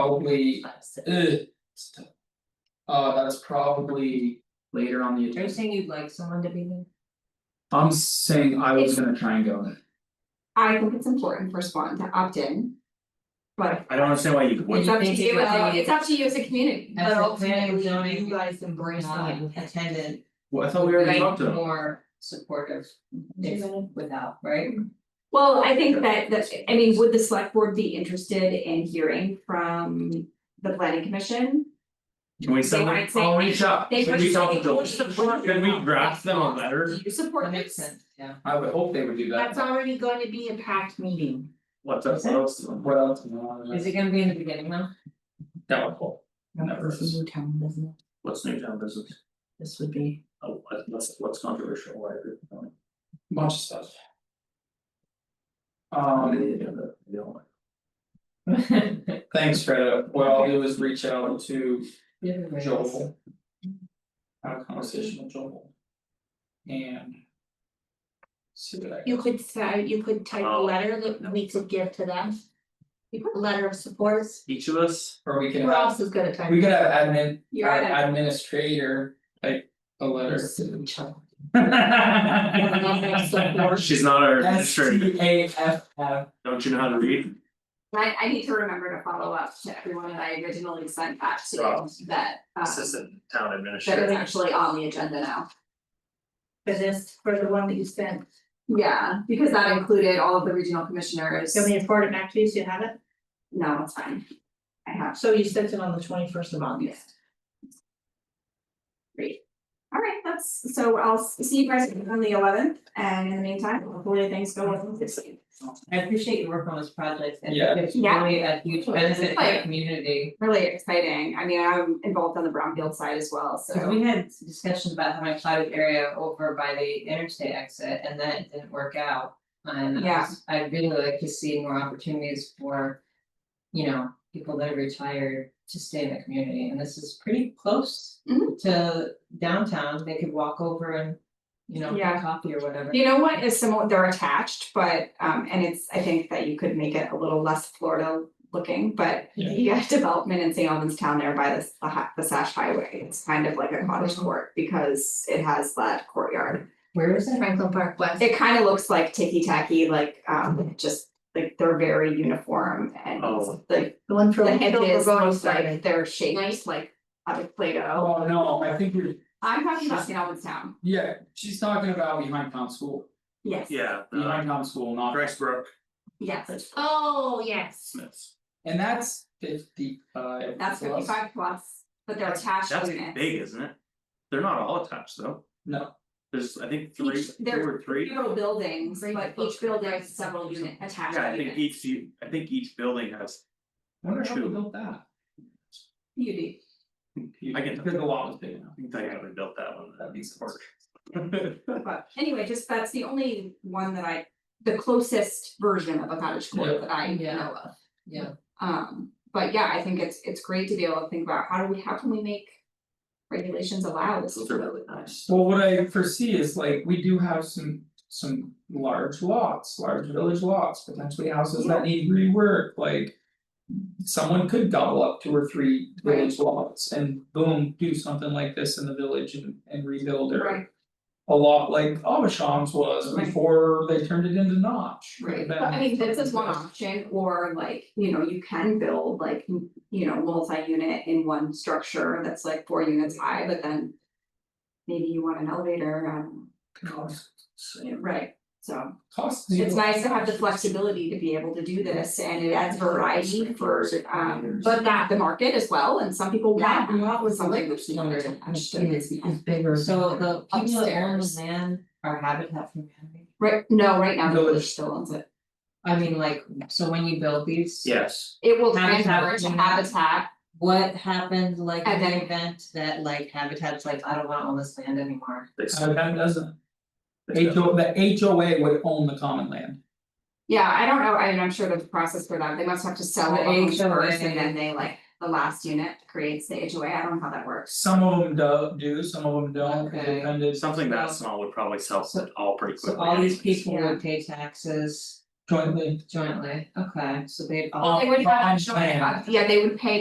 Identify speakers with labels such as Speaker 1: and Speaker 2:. Speaker 1: probably, ugh. it's tough. Uh, that's probably later on the
Speaker 2: Are you
Speaker 1: agenda,
Speaker 2: saying you'd like someone to be there?
Speaker 1: I'm saying I was gonna try and go.
Speaker 3: I think it's important for Swan to opt in. But
Speaker 4: I don't understand why you
Speaker 3: it's
Speaker 4: wouldn't,
Speaker 3: up to
Speaker 2: think it
Speaker 3: you,
Speaker 2: would
Speaker 3: as-
Speaker 2: be-
Speaker 3: it's up to you as a community.
Speaker 2: As
Speaker 3: But
Speaker 2: a planning and
Speaker 3: ultimately,
Speaker 2: zoning,
Speaker 3: You guys embrace that.
Speaker 2: Not attendant,
Speaker 1: Well, I thought we already talked to
Speaker 2: like
Speaker 1: them,
Speaker 2: more supportive if without, right?
Speaker 3: Well, I think that that, I mean, would the select board be interested in hearing from the planning commission?
Speaker 4: can we
Speaker 3: They
Speaker 4: send them,
Speaker 3: might say-
Speaker 4: I'll reach out,
Speaker 3: They
Speaker 4: can
Speaker 3: would
Speaker 4: we
Speaker 3: say,
Speaker 4: talk to
Speaker 3: "We
Speaker 4: them,
Speaker 3: support
Speaker 4: can
Speaker 3: you."
Speaker 4: we draft them a letter?
Speaker 3: Do you support
Speaker 2: That makes
Speaker 3: this?
Speaker 2: sense, yeah.
Speaker 1: I would hope they would do that,
Speaker 2: already going to be a packed meeting.
Speaker 4: What's up, what else?
Speaker 1: what else? No,
Speaker 2: Is it gonna be in the beginning though?
Speaker 1: That would help. Never.
Speaker 5: This is new town business,
Speaker 4: What's new town business?
Speaker 5: this would be,
Speaker 4: Oh, what- what's what's controversial, why are people
Speaker 1: bunch of stuff.
Speaker 4: on
Speaker 1: Um,
Speaker 4: the agenda? They don't like-
Speaker 1: thanks, Freda, what I'll do is reach out to Joel. Have a conversation with Joel. And. See what I
Speaker 6: You could say, you could type a
Speaker 4: Oh.
Speaker 6: letter that we could give to them. You put a letter of support,
Speaker 4: Each of us,
Speaker 1: or we can
Speaker 6: we're
Speaker 1: have,
Speaker 6: also good at typing.
Speaker 1: we could have admin,
Speaker 3: You're at
Speaker 1: ad- administrator, like a letter.
Speaker 4: she's not our
Speaker 1: S
Speaker 4: administrator,
Speaker 1: T A F F,
Speaker 4: don't you know how to read?
Speaker 3: I I need to remember to follow up to everyone that I originally sent back to
Speaker 4: Oh.
Speaker 3: that
Speaker 5: Uh,
Speaker 3: um
Speaker 4: Assistant town
Speaker 3: that is
Speaker 4: administrator.
Speaker 3: actually on the agenda now.
Speaker 6: For this, for the one that you sent,
Speaker 3: Yeah, because that included all of the regional commissioners.
Speaker 6: can we afford it back to you, so you have it?
Speaker 3: No, it's fine. I have,
Speaker 6: So you sent it on the twenty first of August.
Speaker 3: all right, that's, so I'll s- see you guys on the eleventh, and in the meantime, hopefully things go well this week.
Speaker 2: I appreciate your work on this project and
Speaker 1: Yeah.
Speaker 2: it's
Speaker 3: Yeah.
Speaker 2: really a huge benefit to the
Speaker 3: Like-
Speaker 2: community.
Speaker 3: Really exciting, I mean, I'm involved on the Brownfield side as well,
Speaker 2: Cause
Speaker 3: so.
Speaker 2: we had discussions about having a clouded area over by the interstate exit and that didn't work out. And I
Speaker 3: Yeah.
Speaker 2: was- I'd really like to see more opportunities for. You know, people that are retired to stay in the community and this is pretty close
Speaker 3: Mhm.
Speaker 2: to downtown, they could walk over and. You know,
Speaker 3: Yeah.
Speaker 2: get coffee or whatever.
Speaker 3: You know what is similar, they're attached, but um and it's, I think that you could make it a little less Florida looking, but.
Speaker 1: Yeah.
Speaker 3: You have development in St. Albans Town there by this, the ha- the Sash Highway, it's kind of like a cottage court because it has that courtyard.
Speaker 2: Where is it?
Speaker 6: Franklin Park West.
Speaker 3: It kind of looks like ticky tacky, like um just like they're very uniform and
Speaker 4: Oh.
Speaker 3: like
Speaker 6: The one for.
Speaker 3: the hedges look like
Speaker 6: side.
Speaker 3: they're shaped like out of Play-Doh.
Speaker 1: oh no, I think you're,
Speaker 3: I'm talking about St. Albans Town,
Speaker 1: yeah, she's talking about behind town school,
Speaker 3: yes, yes.
Speaker 4: Yeah, uh,
Speaker 1: behind town school, not.
Speaker 4: Rexbrook
Speaker 6: Oh, yes.
Speaker 4: Smiths,
Speaker 1: And that's fifty five.
Speaker 3: That's fifty five plus, but they're attached
Speaker 4: that's
Speaker 3: units.
Speaker 4: big, isn't it? They're not all attached though,
Speaker 1: No,
Speaker 4: there's, I think, three,
Speaker 3: Each-
Speaker 4: two or three.
Speaker 3: Several buildings,
Speaker 6: Three
Speaker 3: but each
Speaker 6: books.
Speaker 3: building has several unit attached
Speaker 4: Yeah, I think
Speaker 3: units.
Speaker 4: each, u- I think each building has,
Speaker 1: I wonder how we
Speaker 4: True.
Speaker 1: built that.
Speaker 3: Beauty.
Speaker 4: I can-
Speaker 1: Because the lot was big enough.
Speaker 4: I think they haven't built that one, that needs work.
Speaker 3: But anyway, just that's the only one that I, the closest version of a cottage
Speaker 1: Yeah.
Speaker 3: court that I
Speaker 2: Yeah.
Speaker 3: know of.
Speaker 2: Yeah.
Speaker 3: Um, but yeah, I think it's it's great to be able to think about how do we, how can we make regulations allow this?
Speaker 4: Those are really nice.
Speaker 1: Well, what I foresee is like, we do have some, some large lots, large village lots, potentially houses that need rework, like. Someone could gobble up two or three village lots and boom, do something like this in the village and and rebuild it.
Speaker 3: Right.
Speaker 1: A lot like Avashan's was
Speaker 3: Right.
Speaker 1: before they turned it into notch.
Speaker 3: Right, but I mean, this is one option, or like, you know, you can build like, you know, multi-unit in one structure that's like four units high, but then. Maybe you want an elevator, um,
Speaker 1: Cost,
Speaker 3: yeah, right, so.
Speaker 1: cost.
Speaker 3: It's nice to have the flexibility to be able to do this and it adds variety for um
Speaker 6: But that,
Speaker 3: the market as well, and some people
Speaker 6: that
Speaker 3: want
Speaker 6: lot was
Speaker 3: something
Speaker 6: like.
Speaker 3: that's not attached to
Speaker 5: is
Speaker 3: it.
Speaker 5: is bigger.
Speaker 2: So the people that own the
Speaker 3: Upstairs.
Speaker 2: land are Habitat for Humanity.
Speaker 3: Right, no, right now, the
Speaker 1: Village.
Speaker 3: village still owns it.
Speaker 2: I mean, like, so when you build these.
Speaker 4: Yes.
Speaker 3: It will
Speaker 2: Habitat
Speaker 3: transfer to
Speaker 2: will not-
Speaker 3: habitat,
Speaker 2: What happened like in
Speaker 3: And
Speaker 2: the
Speaker 3: then-
Speaker 2: event that like Habitat's like, I don't wanna own this land anymore.
Speaker 4: They s-
Speaker 1: Uh, that doesn't,
Speaker 4: they
Speaker 1: H
Speaker 4: s-
Speaker 1: O, the H O A would own the common land.
Speaker 3: yeah, I don't know, I mean, I'm sure there's a process for that, they must have to sell
Speaker 2: The
Speaker 3: it on
Speaker 2: HOA.
Speaker 3: first, and then they like, the last unit creates the HOA, I don't know how that works.
Speaker 1: Some of them do, do, some of them don't, it
Speaker 2: Okay.
Speaker 1: depended.
Speaker 4: Something that small would probably sell
Speaker 2: So-
Speaker 4: all pretty quickly.
Speaker 2: So all these
Speaker 4: anyways.
Speaker 2: people would pay taxes
Speaker 7: jointly.
Speaker 8: jointly, okay, so they'd all.
Speaker 2: All-
Speaker 3: They would have
Speaker 2: on
Speaker 3: joint-
Speaker 2: plan.
Speaker 3: Yeah, they would pay